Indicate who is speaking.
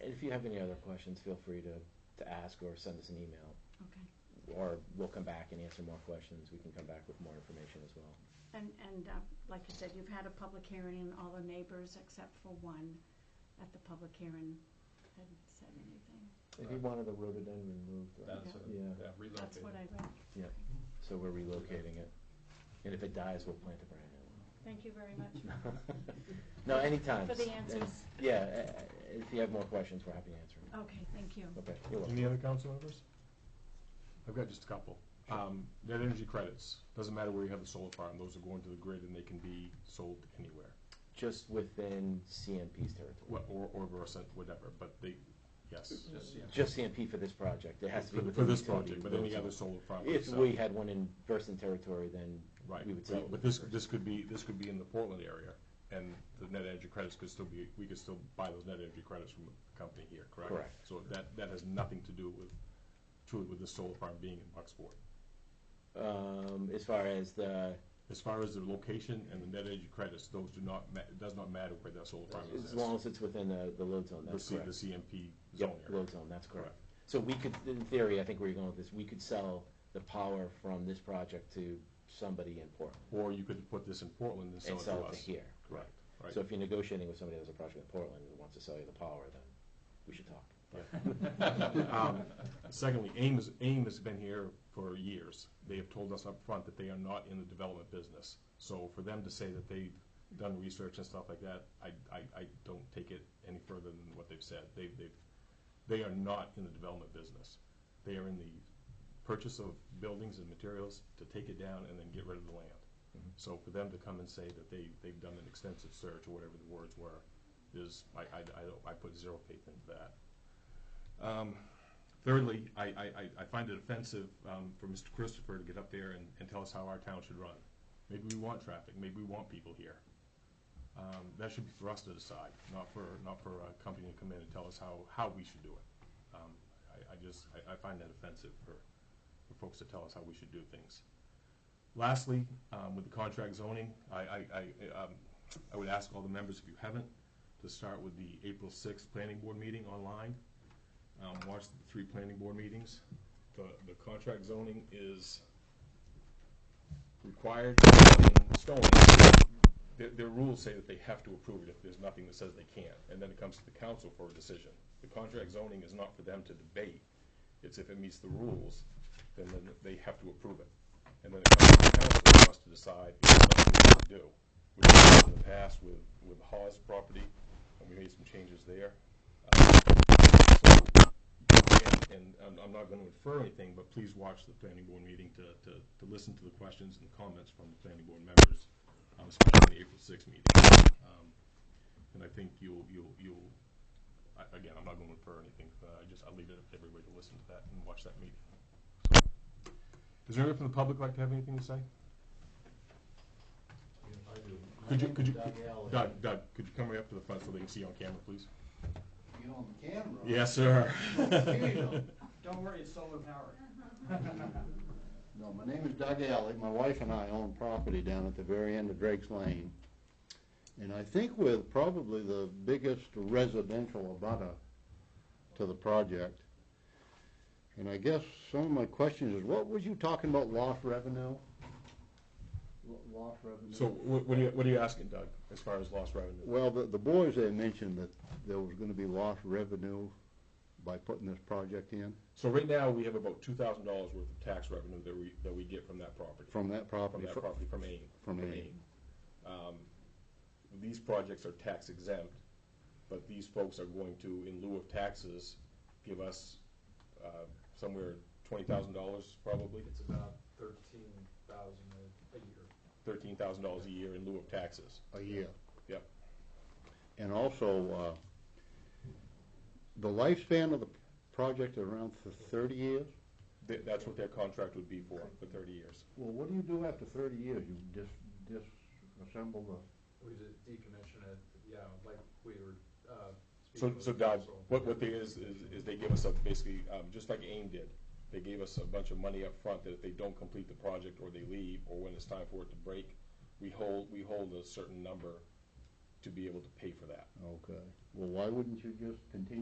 Speaker 1: if you have any other questions, feel free to, to ask or send us an email.
Speaker 2: Okay.
Speaker 1: Or we'll come back and answer more questions. We can come back with more information as well.
Speaker 2: And, and uh, like you said, you've had a public hearing and all the neighbors except for one at the public hearing hadn't said anything.
Speaker 1: If you wanted the rhododendron moved, right?
Speaker 3: That's what,
Speaker 1: Yeah.
Speaker 3: yeah,
Speaker 2: That's
Speaker 3: relocated.
Speaker 2: what I read.
Speaker 1: Yeah. So we're relocating it. And if it dies, we'll plant a brand new one.
Speaker 2: Thank you very much
Speaker 1: No, anytime.
Speaker 2: for the
Speaker 1: And-
Speaker 2: answers.
Speaker 1: Yeah, uh, uh, if you have more questions, we're happy to answer them.
Speaker 2: Okay, thank you.
Speaker 1: Okay, you're welcome.
Speaker 4: Any other council members? I've got just a couple. Um, net energy credits, doesn't matter where you have a solar farm, those are going to the grid and they can be sold anywhere.
Speaker 1: Just within CMP's territory.
Speaker 4: What, or, or Versant, whatever, but they, yes.
Speaker 3: Just, yeah.
Speaker 1: Just CMP for this project. It has to be
Speaker 4: For-
Speaker 1: within.
Speaker 4: For this
Speaker 1: utility
Speaker 4: project, but any
Speaker 1: rules.
Speaker 4: other solar farm.
Speaker 1: If
Speaker 4: so-
Speaker 1: we had one in Versant territory, then
Speaker 4: Right,
Speaker 1: we would sell it.
Speaker 4: but this, this could be, this could be in the Portland area and the net energy credits could still be, we could still buy those net energy credits from a company here, correct?
Speaker 1: Correct.
Speaker 4: So that, that has nothing to do with, truly with the solar farm being in Bucksport.
Speaker 1: Um, as far as the,
Speaker 4: As far as the location and the net energy credits, those do not, ma- it does not matter where that solar farm is.
Speaker 1: as long as it's within the, the load zone,
Speaker 4: The
Speaker 1: that's
Speaker 4: C- The
Speaker 1: correct.
Speaker 4: CMP zone
Speaker 1: Yep,
Speaker 4: area.
Speaker 1: load zone, that's correct.
Speaker 4: Correct.
Speaker 1: So we could, in theory, I think where you're going with this, we could sell the power from this project to somebody in Portland
Speaker 4: Or you could put this in Portland and sell
Speaker 1: and
Speaker 4: it to
Speaker 1: sell it to
Speaker 4: us.
Speaker 1: here.
Speaker 4: Correct, right.
Speaker 1: So if you're negotiating with somebody that has a project in Portland that wants to sell you the power, then we should talk.
Speaker 4: Um, Secondly, AIM is, AIM has been here for years. They have told us up front that they are not in the development business. So for them to say that they've done research and stuff like that, I, I, I don't take it any further than what they've said. They, they've, they are not in the development business. They are in the purchase of buildings and materials to take it down and then get rid of the land.
Speaker 1: Mhm.
Speaker 4: So for them to come and say that they, they've done an extensive search or whatever the words were, is, I, I, I don't, I put zero faith into that. Um, Thirdly, I, I, I- I find it offensive um, for Mr. Christopher to get up there and, and tell us how our town should run. Maybe we want traffic, maybe we want people here. Um, That should be for us to decide, not for, not for a company to come in and tell us how, how we should do it. Um, I, I just, I, I find that offensive for, for folks to tell us how we should do things. Lastly, um, with the contract zoning, I, I, I, um, I would ask all the members, if you haven't, to start with the April sixth planning board meeting online um, watched the three planning board meetings. The, the contract zoning is required in stone. Their, their rules say that they have to approve it if there's nothing that says they can't, and then it comes to the council for a decision. The contract zoning is not for them to debate, it's if it meets the rules, then, then they have to approve it. And then it comes to the council for us to decide if it's something we can do. We've done it in the past with, with Hawes property, and we made some changes there. Um, so and- and I'm, I'm not gonna infer anything, but please watch the planning board meeting to, to, to listen to the questions and comments from the planning board members, um, especially the April sixth meeting. Um, And I think you'll, you'll, you'll, I, again, I'm not gonna infer anything, but I just, I'll leave it up to everybody to listen to that and watch that meeting. Does anyone from the public like to have anything to say? Could you, could you, Doug, Doug, could you come right up to the front so they can see you on camera, please?
Speaker 5: You on camera?
Speaker 4: Yes, sir.
Speaker 6: Don't worry, it's solar powered.
Speaker 5: No, my name is Doug Alley. My wife and I own property down at the very end of Drake's Lane. And I think we're probably the biggest residential abutter to the project. And I guess some of my questions is, what was you talking about lost revenue? Lo- Lost revenue?
Speaker 4: So what, what are you, what are you asking, Doug, as far as lost revenue?
Speaker 5: Well, the, the boys there mentioned that there was gonna be lost revenue by putting this project in
Speaker 4: So right now, we have about two thousand dollars worth of tax revenue that we, that we get from that property.
Speaker 5: from that
Speaker 4: From
Speaker 5: property.
Speaker 4: that property, from AIM.
Speaker 5: From AIM.
Speaker 4: Um, These projects are tax exempt, but these folks are going to, in lieu of taxes, give us, uh, somewhere twenty thousand dollars probably,
Speaker 7: It's about thirteen thousand a year.
Speaker 4: thirteen thousand dollars a year in lieu of taxes.
Speaker 5: A year.
Speaker 4: Yep.
Speaker 5: And also, uh, the lifespan of the project is around th- thirty years?
Speaker 4: Th- that's what their contract would be for, for thirty years.
Speaker 5: Well, what do you do after thirty years? You dis- disassemble the,
Speaker 7: We just decommission it, yeah, like we were, uh.
Speaker 4: So,
Speaker 7: speaking
Speaker 4: so
Speaker 7: with
Speaker 4: Doug,
Speaker 7: council.
Speaker 4: what, what they is, is, is they give us a, basically, um, just like AIM did, they gave us a bunch of money up front that if they don't complete the project, or they leave, or when it's time for it to break, we hold, we hold a certain number to be able to pay for that.
Speaker 5: okay. Well, why wouldn't you just continue